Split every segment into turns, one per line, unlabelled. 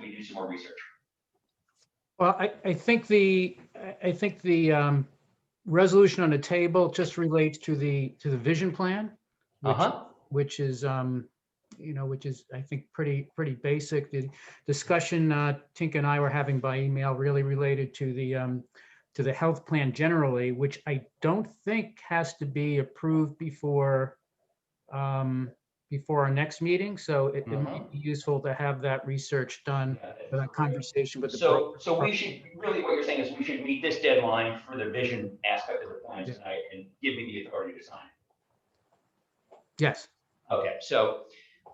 do some more research.
Well, I, I think the, I- I think the um, resolution on the table just relates to the, to the vision plan. which-
Uh-huh.
Which is, um, you know, which is, I think, pretty, pretty basic. The discussion uh, Tink and I were having by email really related to the, um, to the health plan generally, which I don't think has to be approved before, um, before our next meeting. So it it might be useful to have that research done, for that conversation with the.
So, so we should, really what you're saying is we should meet this deadline for the vision aspect of the plan
Yeah.
tonight and give me the authority to sign.
Yes.
Okay, so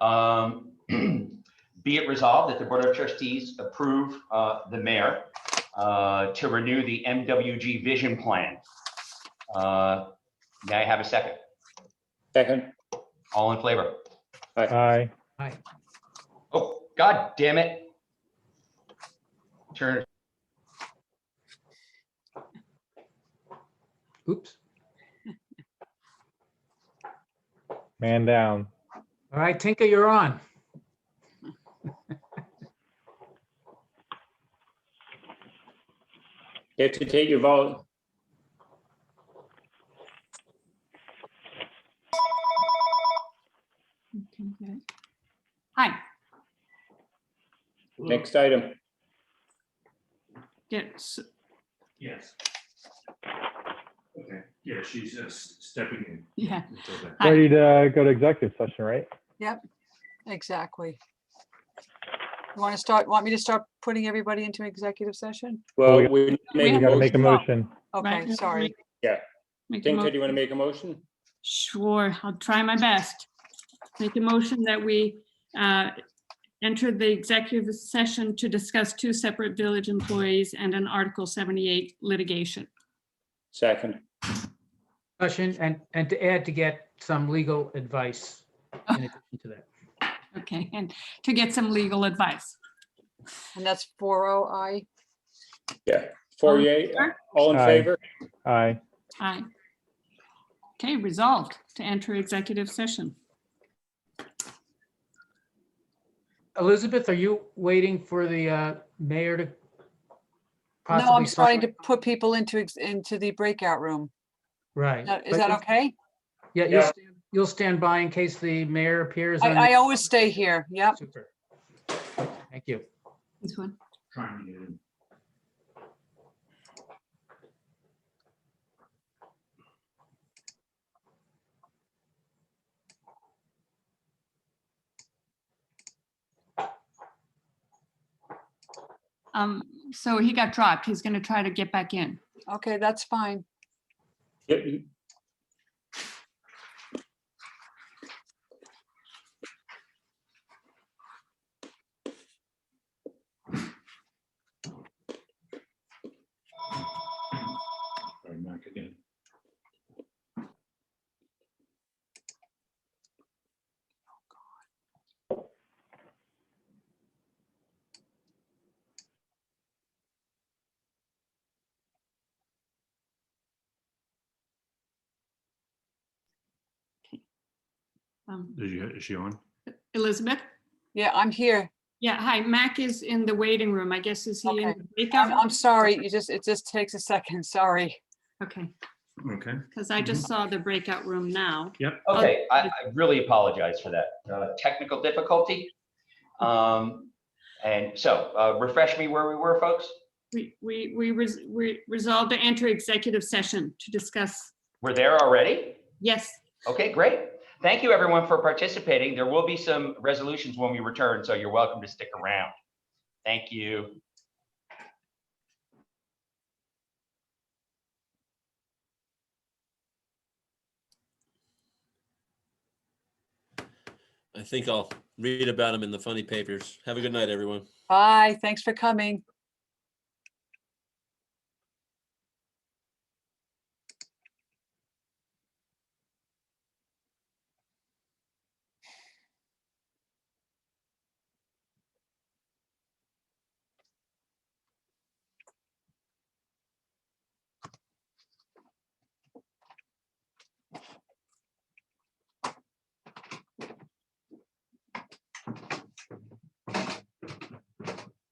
um, be it resolved that the Board of Trustees approve uh, the mayor uh, to renew the MWG vision plan. Uh, May I have a second?
Second.
All in favor?
Aye.
Oh, god damn it. Turn,
Oops.
Man down.
All right, Tinka, you're on.
You have to take your vote.
Okay, good. Hi, Hmm.
Next
Oh,
item.
yes,
Yes. Okay, yeah, she's just stepping in. uh,
yeah,
until then.
Aye.
Ready to go to executive session, right?
Exactly. You want to start, want me to start putting everybody into executive session?
Well, we
We
make
We
a
have
gotta make a
motion.
motion.
Right,
Okay,
yeah,
sorry.
make a
Tinka, do you want to
motion.
make a motion?
Sure, I'll try my best. Make a motion that we uh, enter the executive session to discuss two separate village employees and an Article 78 litigation.
Second.
Discussion and, and to add to get some legal advice in addition to that.
Okay, and to get some legal advice.
And that's four oh I.
Four
Um,
yea,
sure.
all in
Aye.
favor?
Aye.
Aye. Okay, resolved to enter executive session.
Elizabeth, are you waiting for the uh, mayor to?
No,
possibly
I'm starting to put people into, ex- into the breakout room.
Right.
Now, Is
But
that
you-
okay?
Yeah, you'll,
Yeah.
stand- you'll stand by in case the mayor appears. on-
I, I always stay here. Yep.
Super. Thank you.
This one.
Trying to get in.
Um, So he got dropped. He's going to try to get back in.
Okay, that's fine.
Yep, you-
Sorry, Mike, again.
Um,
Is she- is she on?
Elizabeth?
Yeah, I'm here.
Yeah, hi, Mac is in the waiting room. I guess is he in
Okay.
the
I'm,
breakout?
I'm sorry. You just, it just takes a second. Sorry.
Okay,
Okay.
because
Mm-hmm.
I just saw the breakout room now.
okay, I, I really apologize for that, uh, technical difficulty. Um, and so, uh, refresh me where we were, folks?
We, we, we res- we resolved to enter executive session to discuss,
We're there already?
yes,
Okay, great. Thank you, everyone, for participating. There will be some resolutions when we return, so you're welcome to stick around. Thank you.
I think I'll read about them in the funny papers. Have a good night, everyone.
Bye. Thanks for coming.